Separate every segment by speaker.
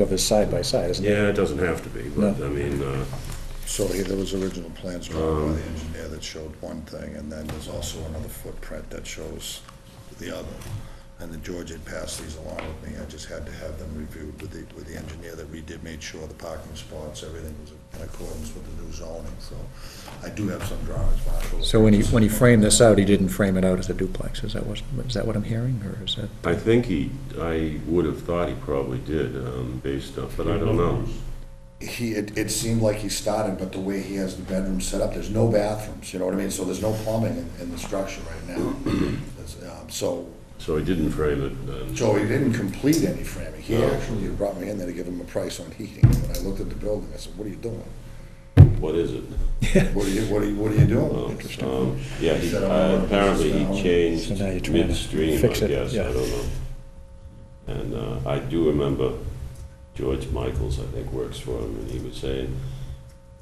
Speaker 1: of his side by side, isn't it?
Speaker 2: Yeah, it doesn't have to be, but I mean, uh,
Speaker 3: So here, there was original plans drawn by the
Speaker 1: Um.
Speaker 3: engineer that showed one thing, and then there's also another footprint that shows the other. And then George had passed these along with me, I just had to have them reviewed with the, with the engineer that we did, made sure the parking spots, everything was in accordance with the new zoning, so I do have some drawings, Marshall.
Speaker 1: So when he, when he framed this out, he didn't frame it out as a duplex, is that what, is that what I'm hearing, or is that?
Speaker 2: I think he, I would have thought he probably did, um, based on, but I don't know.
Speaker 3: he it, it seemed like he started, but the way he has the bedroom set up, there's no bathrooms. You know what I mean? So there's no plumbing in, in the structure right now. There's, um, so
Speaker 2: So he didn't frame it, then.
Speaker 3: Joey didn't complete any framing. He actually brought me in there to give him a price on heating. When I looked at the building, I said, "What are you doing?
Speaker 2: what is it?
Speaker 3: What are you What are you, what are you
Speaker 2: Um,
Speaker 3: doing?"
Speaker 2: um, Yeah, he, uh, apparently he
Speaker 1: So
Speaker 2: changed
Speaker 1: now you're trying to
Speaker 2: midstream, I
Speaker 1: fix it,
Speaker 2: guess, I
Speaker 1: yeah.
Speaker 2: don't know. And uh, I do remember George Michaels, I think, works for him, and he was saying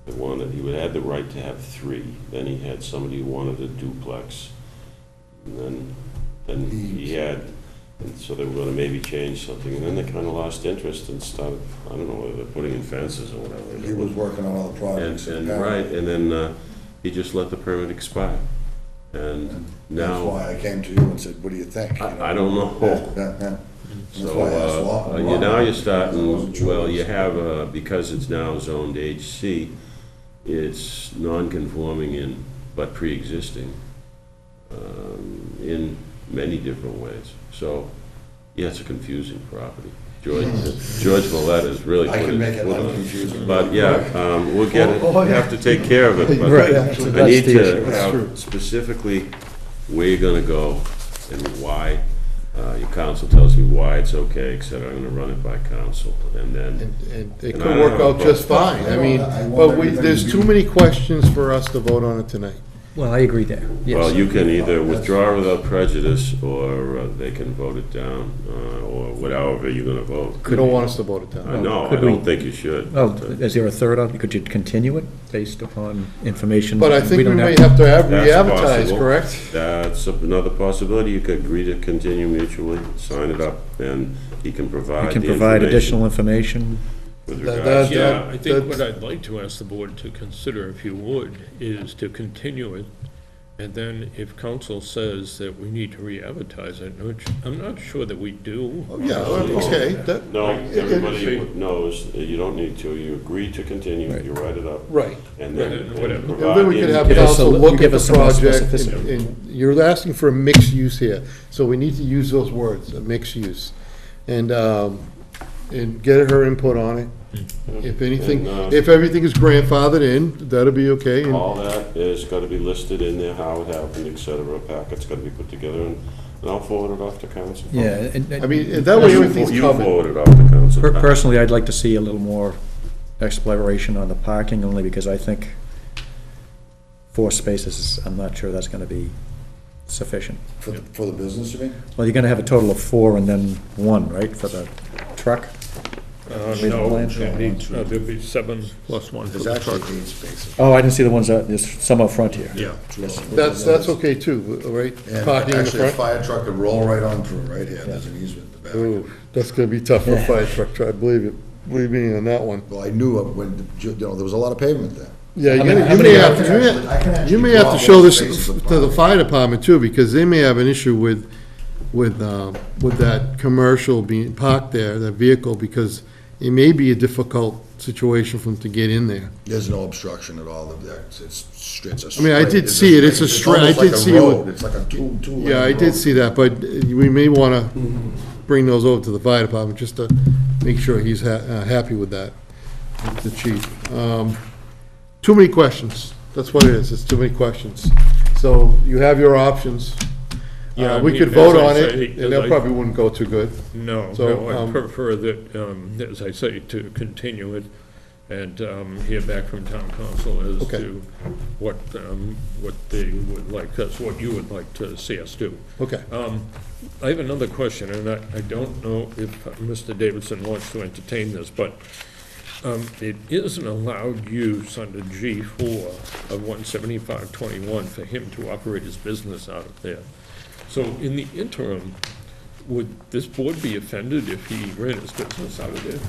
Speaker 2: they wanted, he would had the right to have three, then he had somebody who wanted a duplex, and then, then he had, and so they were gonna maybe change something, and then they kinda lost interest and started, I don't know, whether they're putting in fences or whatever.
Speaker 3: He was working on other
Speaker 2: And,
Speaker 3: projects.
Speaker 2: and, right,
Speaker 3: apparently.
Speaker 2: and then uh, he just let the permit expire. And
Speaker 3: That's
Speaker 2: now,
Speaker 3: why I came to you and said, "What do you think?" You know?
Speaker 2: I, I don't know.
Speaker 3: Yeah, yeah. That's
Speaker 2: So,
Speaker 3: why I asked Lawton.
Speaker 2: uh, you, now you're
Speaker 3: I wasn't
Speaker 2: starting,
Speaker 3: sure.
Speaker 2: well, you have, uh, because it's now zoned HC, it's non-conforming in, but pre-existing, um, in many different ways. So, yeah, it's a confusing property. George,
Speaker 1: Hmm.
Speaker 2: George Valletta is really.
Speaker 3: I
Speaker 2: put
Speaker 3: can make it
Speaker 2: foot on
Speaker 3: unconfusing.
Speaker 2: But yeah, um, we'll get it, we have to take care of it,
Speaker 1: Oh, Right.
Speaker 2: but I
Speaker 1: That's
Speaker 2: need
Speaker 1: the
Speaker 2: to
Speaker 1: issue. That's
Speaker 2: have specifically where you're gonna go and why. Uh, your council tells me why it's okay, et cetera, I'm gonna run it by council, and then,
Speaker 4: And, and it
Speaker 2: And
Speaker 4: could
Speaker 2: I
Speaker 4: work
Speaker 2: don't
Speaker 4: out
Speaker 2: know.
Speaker 4: just fine, I mean,
Speaker 3: I want
Speaker 4: but we,
Speaker 3: everything
Speaker 4: there's
Speaker 3: to
Speaker 4: too
Speaker 3: be-
Speaker 4: many questions for us to vote on it tonight.
Speaker 1: Well, I agree there, yes.
Speaker 2: well, you can either withdraw without prejudice, or uh, they can vote it down, uh, or whatever you're gonna vote.
Speaker 4: They don't want us to vote it down.
Speaker 2: I know, I
Speaker 1: Could
Speaker 2: don't
Speaker 1: we-
Speaker 2: think you should.
Speaker 1: Well, is there a third, op- could you continue it based upon information?
Speaker 4: But I think we
Speaker 1: don't
Speaker 4: may have to have
Speaker 2: That's
Speaker 4: re-advertise,
Speaker 2: possible.
Speaker 4: correct?
Speaker 2: That's another possibility, you could agree to continue mutually, sign it up, and he can provide
Speaker 1: We can
Speaker 2: the
Speaker 1: provide
Speaker 2: information.
Speaker 1: additional information,
Speaker 2: With
Speaker 4: That-
Speaker 2: regards,
Speaker 4: that-
Speaker 2: yeah,
Speaker 5: Yeah, I think
Speaker 4: that's-
Speaker 5: what I'd like to ask the board to consider, if you would, is to continue it. And then if council says that we need to re-advertise it, which I'm not sure that we do.
Speaker 4: Oh, Yeah, okay, that,
Speaker 2: no,
Speaker 4: it-
Speaker 2: everybody knows, that you don't need to, you agree to continue, you write it up.
Speaker 4: right.
Speaker 2: And then.
Speaker 5: Right, whatever.
Speaker 2: and
Speaker 4: And then we could have
Speaker 2: provide-
Speaker 1: us a
Speaker 4: council
Speaker 1: li-
Speaker 4: look at
Speaker 1: give
Speaker 4: the
Speaker 1: us some more
Speaker 4: project, and-
Speaker 1: specificity.
Speaker 4: and you're asking for a mixed use here, so we need to use those words, a mixed use. And, um, and get her input on it. If anything,
Speaker 2: And, uh,
Speaker 4: if everything is grandfathered in, that'll be okay, and
Speaker 2: All that is gotta be listed in there, how it happened, et cetera, packet's gotta be put together, and and I'll forward it off to council.
Speaker 1: yeah. and-
Speaker 4: I mean, and that way
Speaker 2: You
Speaker 4: everything's
Speaker 2: you
Speaker 4: covered.
Speaker 2: forward it off to council.
Speaker 1: Per- Personally, I'd like to see a little more exploration on the parking, only because I think four spaces, is- I'm not sure that's gonna be sufficient.
Speaker 3: For, the- for the business, you mean?
Speaker 1: Well, you're gonna have a total of four and then one, right, for the truck?
Speaker 5: Uh,
Speaker 1: the
Speaker 5: no,
Speaker 1: plan show
Speaker 5: it needs- uh, there'll be seven plus one for
Speaker 3: There's
Speaker 5: the
Speaker 3: actually
Speaker 5: truck.
Speaker 3: eight spaces.
Speaker 1: Oh, I didn't see the ones that, there's some up front here.
Speaker 3: Yeah.
Speaker 4: that's, that's okay too, right?
Speaker 3: And
Speaker 4: Parking in the
Speaker 3: actually, a
Speaker 4: front?
Speaker 3: fire truck could roll right on through, right here, there's an easement in the back.
Speaker 4: Ooh, that's gonna be tough for a fire truck, I believe it, believe me on that one.
Speaker 3: Well, I knew of when, the- you know, there was a lot of pavement there.
Speaker 4: Yeah, you
Speaker 1: many-
Speaker 4: may-
Speaker 1: how
Speaker 4: you
Speaker 1: many
Speaker 4: may
Speaker 1: are-
Speaker 4: have, you
Speaker 3: I can
Speaker 4: may,
Speaker 3: actually
Speaker 4: you may have
Speaker 3: draw
Speaker 4: to show
Speaker 3: those
Speaker 4: this
Speaker 3: spaces of
Speaker 4: to the
Speaker 3: parking.
Speaker 4: fire department too, because they may have an issue with, with, um, with that commercial being parked there, that vehicle, because it may be a difficult situation for them to get in there.
Speaker 3: There's no obstruction at all, it's, it's straight, it's a
Speaker 4: I mean, I
Speaker 3: straight-
Speaker 4: did
Speaker 3: it's a
Speaker 4: see it. It's a straight- I
Speaker 3: almost
Speaker 4: did
Speaker 3: like a
Speaker 4: see it with-
Speaker 3: road. It's like a two, two.
Speaker 4: Yeah, I did see that, but we may wanna bring those over to the fire department, just to make sure he's ha- uh, happy with that, with the chief. Um, Too many questions, that's what it is, it's too many questions. So you have your options.
Speaker 5: Yeah,
Speaker 4: Uh,
Speaker 5: I
Speaker 4: we
Speaker 5: mean,
Speaker 4: could
Speaker 5: as
Speaker 4: vote
Speaker 5: I
Speaker 4: on
Speaker 5: say,
Speaker 4: it,
Speaker 5: as
Speaker 4: and that
Speaker 5: I-
Speaker 4: probably wouldn't go too good.
Speaker 5: No,
Speaker 4: So,
Speaker 5: no,
Speaker 4: um,
Speaker 5: I prefer that, um, as I say, to continue it and um, hear back from town council as
Speaker 4: Okay.
Speaker 5: to what, um, what they would like, us what you would like to see us do.
Speaker 4: Okay,
Speaker 5: Um, I have another question, and I, I don't know if Mr. Davidson wants to entertain this, but um, it is an allowed use under G four of one seventy-five twenty-one for him to operate his business out of there. So in the interim, would this board be offended if he ran his business out of there?